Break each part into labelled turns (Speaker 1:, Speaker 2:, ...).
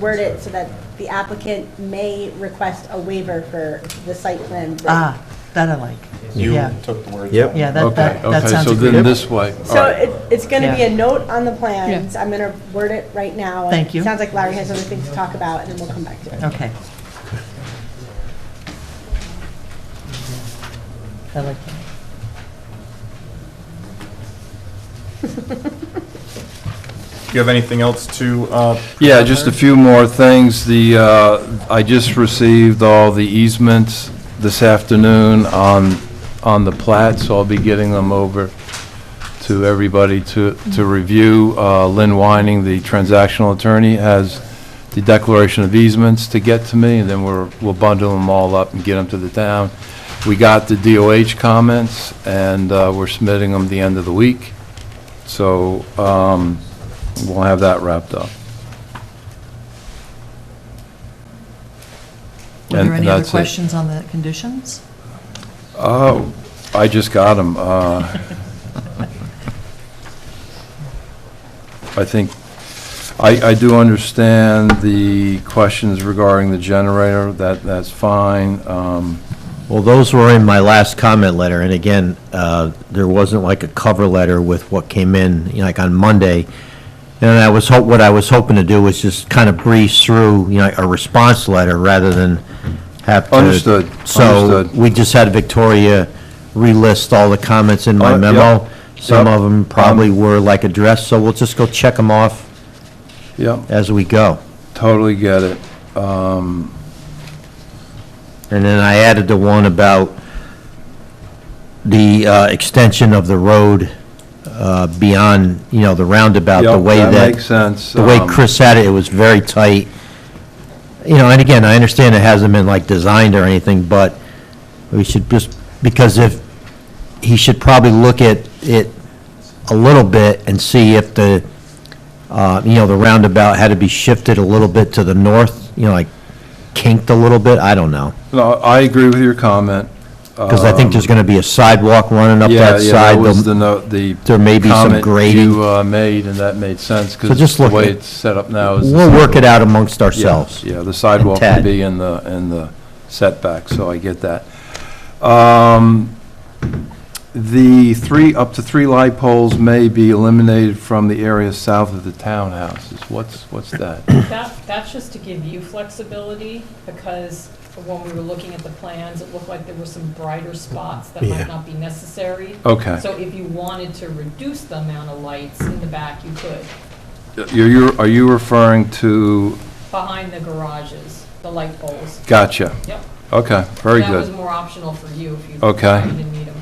Speaker 1: word it so that the applicant may request a waiver for the site plan. review.
Speaker 2: Ah, that I like. Yeah,
Speaker 3: took the words.
Speaker 4: Yep.
Speaker 2: yeah, that,
Speaker 5: Okay,
Speaker 2: that, that
Speaker 5: okay,
Speaker 2: sounds
Speaker 5: so then
Speaker 2: agreeable.
Speaker 5: this way, all
Speaker 1: So
Speaker 5: right.
Speaker 1: it- it's going to be
Speaker 2: Yeah.
Speaker 1: a note on the plans. I'm going to word it right now. and
Speaker 2: Thank you.
Speaker 1: It sounds like Larry has other things to talk about, and then we'll come back to it.
Speaker 2: Okay. I like that.
Speaker 3: Do you have anything else to? uh,
Speaker 5: Yeah, just a few more things. The, uh, I just received all the easements this afternoon on, on the plat, so I'll be getting them over to everybody to, to review. Uh, Lynn Whining, the transactional attorney, has the declaration of easements to get to me, and then we're, we'll bundle them all up and get them to the town. We got the DOH comments, and uh, we're submitting them the end of the week. So um, we'll have that wrapped up.
Speaker 2: Were
Speaker 5: And
Speaker 2: there any other
Speaker 5: that's it.
Speaker 2: questions on the conditions?
Speaker 5: Oh, I just got uh, them. I think, I, I do understand the questions regarding the generator, that, that's fine. Um,
Speaker 4: Well, those were in my last comment letter, and again, uh, there wasn't like a cover letter with what came in, you know, like on Monday. And I was, ho- what I was hoping to do was just kind of breeze through, you know, a response letter rather than have to.
Speaker 5: Understood,
Speaker 4: So
Speaker 5: understood.
Speaker 4: we just had Victoria relist all the comments in my
Speaker 5: Uh, yep,
Speaker 4: memo. Some
Speaker 5: yep. Um,
Speaker 4: of them probably were like addressed, so we'll just go check them off
Speaker 5: Yeah,
Speaker 4: as we go.
Speaker 5: totally get it.
Speaker 4: And then I added the one about the uh, extension of the road uh, beyond, you know, the roundabout, the
Speaker 5: Yep,
Speaker 4: way that...
Speaker 5: makes sense.
Speaker 4: The way
Speaker 5: Um,
Speaker 4: Chris had it, it was very tight. You know, and again, I understand it hasn't been like designed or anything, but we should just, because if, he should probably look at it a little bit and see if the, uh, you know, the roundabout had to be shifted a little bit to the north, you know, like kinked a little bit, I don't know.
Speaker 5: No, I agree with your comment.
Speaker 4: Because I think there's going to be a sidewalk running up
Speaker 5: Yeah,
Speaker 4: that
Speaker 5: yeah, that
Speaker 4: side.
Speaker 5: was the
Speaker 4: They'll-
Speaker 5: note, the.
Speaker 4: there may be some
Speaker 5: comment
Speaker 4: grading.
Speaker 5: You, uh, made, and that made sense,
Speaker 4: So
Speaker 5: because
Speaker 4: just
Speaker 5: the
Speaker 4: look
Speaker 5: way
Speaker 4: at-
Speaker 5: it's set up now is. the
Speaker 4: We'll work
Speaker 5: sidewalk.
Speaker 4: it out amongst
Speaker 5: Yeah,
Speaker 4: ourselves.
Speaker 5: Yeah, the sidewalk
Speaker 4: And
Speaker 5: would
Speaker 4: Ted.
Speaker 5: be in the, in the setback, so I get that. Um, The three, up to three light poles may be eliminated from the area south of the townhouses. What's, what's that?
Speaker 6: That, that's just to give you flexibility, because when we were looking at the plans, it looked like there were some brighter spots that
Speaker 4: Yeah.
Speaker 6: might not be necessary.
Speaker 5: Okay.
Speaker 6: So if you wanted to reduce the amount of lights in the back, you could,
Speaker 5: You're, you're- are you referring to,
Speaker 6: behind the garages, the light poles.
Speaker 5: gotcha,
Speaker 6: Yep.
Speaker 5: okay, very
Speaker 6: That was
Speaker 5: good.
Speaker 6: more optional for you if you
Speaker 5: Okay.
Speaker 6: decided to need them.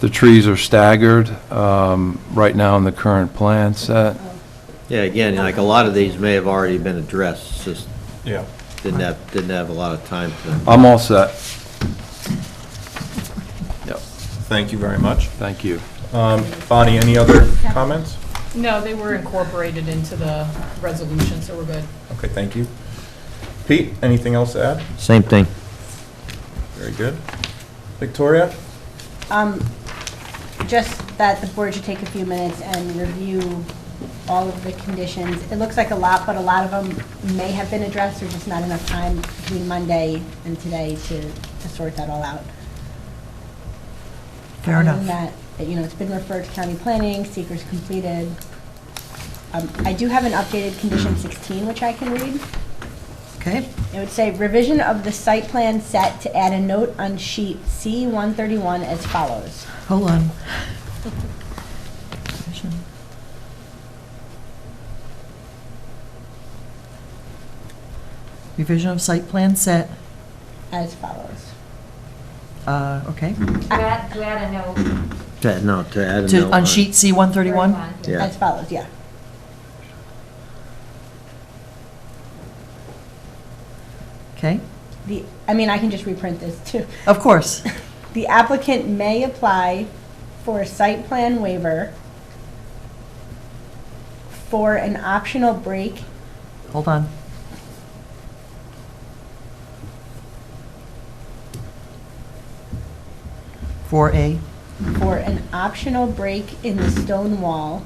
Speaker 5: The trees are staggered, um, right now in the current plan set.
Speaker 4: Yeah, again, like a lot of these may have already been addressed, just
Speaker 3: Yeah.
Speaker 4: didn't have, didn't have a lot of time for them.
Speaker 5: I'm all set. Yep,
Speaker 3: Thank you very much.
Speaker 5: thank you.
Speaker 3: Um, Bonnie, any other comments?
Speaker 6: No, they were incorporated into the resolution, so we're good.
Speaker 3: Okay, thank you. Pete, anything else to add?
Speaker 4: Same thing.
Speaker 3: Very good. Victoria?
Speaker 1: Um, Just that the board should take a few minutes and review all of the conditions. It looks like a lot, but a lot of them may have been addressed, or just not enough time between Monday and today to to sort that all out.
Speaker 2: Fair
Speaker 1: Other than
Speaker 2: enough.
Speaker 1: that, that, you know, it's been referred to county planning, seeker's completed. Um, I do have an updated condition 16, which I can read.
Speaker 2: Okay,
Speaker 1: It would say revision of the site plan set to add a note on sheet C-131 as follows.
Speaker 2: hold on. Revision of site plan set,
Speaker 1: As follows.
Speaker 2: uh, okay,
Speaker 5: Mm-hmm.
Speaker 7: To add, to add a note.
Speaker 4: To- No, to add a
Speaker 2: to,
Speaker 4: note.
Speaker 2: on sheet C131?
Speaker 7: correspondence.
Speaker 4: Yeah.
Speaker 1: As follows, yeah.
Speaker 2: Okay,
Speaker 1: The, I mean, I can just reprint this too.
Speaker 2: of course.
Speaker 1: The applicant may apply for a site plan waiver for an optional break
Speaker 2: Hold on. For a,
Speaker 1: for an optional break in the stone wall